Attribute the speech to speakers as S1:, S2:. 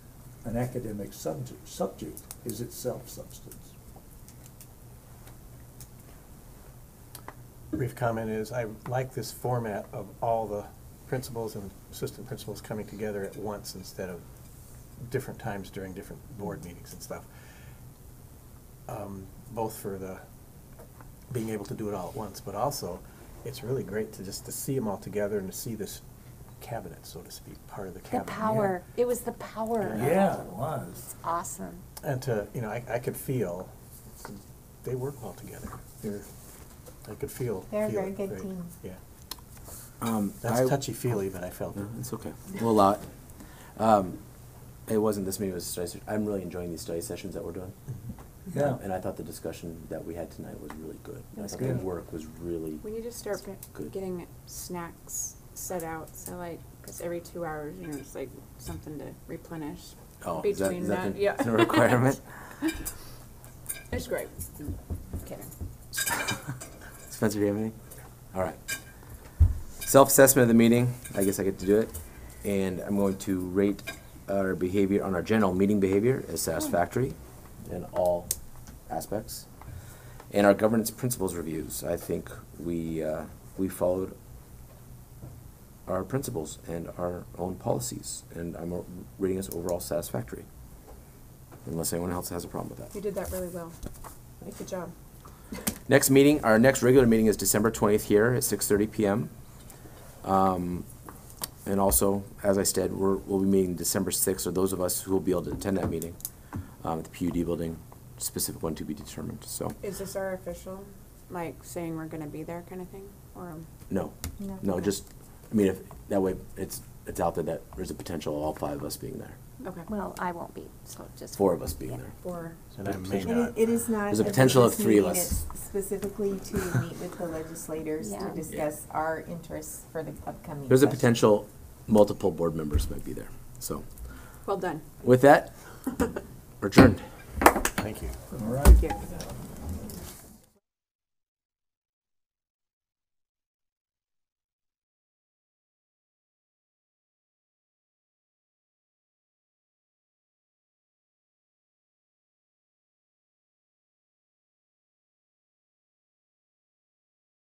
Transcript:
S1: an academic subject, subject is itself substance.
S2: Brief comment is, I like this format of all the principals and assistant principals coming together at once instead of different times during different board meetings and stuff. Um, Both for the, being able to do it all at once, but also, it's really great to just to see them all together and to see this cabinet, so to speak, part of the
S3: The
S2: cabinet.
S3: power, it was the power.
S1: Yeah, it was.
S3: It's awesome.
S2: And to, you know, I, I could feel, they work well together. They're, I could feel.
S3: They're a
S2: feel
S3: very
S2: it
S3: good
S2: very-
S3: team.
S2: Yeah.
S4: Um, I-
S2: That's touchy-feely, but I felt it.
S4: No, it's okay. We'll allow it. Um, it wasn't this meeting, it was a study session. I'm really enjoying these study sessions that we're doing.
S1: Yeah.
S4: Um, And I thought the discussion that we had tonight was really good.
S5: It was
S4: I thought
S1: good.
S4: the work was really,
S5: We need to start p-
S4: Good.
S5: getting snacks set out, so like, because every two hours, you know, it's like something to replenish.
S4: oh, is that,
S5: Between
S4: is that
S5: that,
S4: the-
S5: yeah.
S4: is that a requirement?
S5: It's great. Kidding.
S4: Spencer, do you have anything? All right. Self-assessment of the meeting, I guess I get to do it. And I'm going to rate our behavior on our general meeting behavior as satisfactory in all aspects. And our governance principles reviews, I think we, uh, we followed our principles and our own policies. And I'm uh, rating us overall satisfactory. Unless anyone else has a problem with that.
S5: You did that really well. Good job.
S4: Next meeting, our next regular meeting is December twentieth here at six thirty PM. Um, and also, as I said, we're, we'll be meeting December sixth, or those of us who will be able to attend that meeting, um, at the PUD building, specific one to be determined, so,
S5: Is this our official, like, saying we're gonna be there kind of thing, or?
S4: no.
S3: No.
S4: No, just, I mean, if, that way, it's, it's out there that there's a potential of all five of us being there,
S5: Okay.
S3: Well, I won't be, so just.
S4: four of us being there.
S5: Or,
S2: And I may
S6: It
S2: not.
S6: i- It is not.
S4: There's a
S6: a
S4: potential of
S6: business
S4: three of
S6: meeting.
S4: us.
S6: It's Specifically to meet with the legislators
S3: Yeah.
S6: to
S3: Yeah.
S6: discuss our interests for the upcoming.
S4: There's a
S6: session.
S4: potential multiple board members might be there, so,
S5: well done.
S4: with that, we're adjourned.
S2: Thank you.
S1: All right.
S5: Yeah.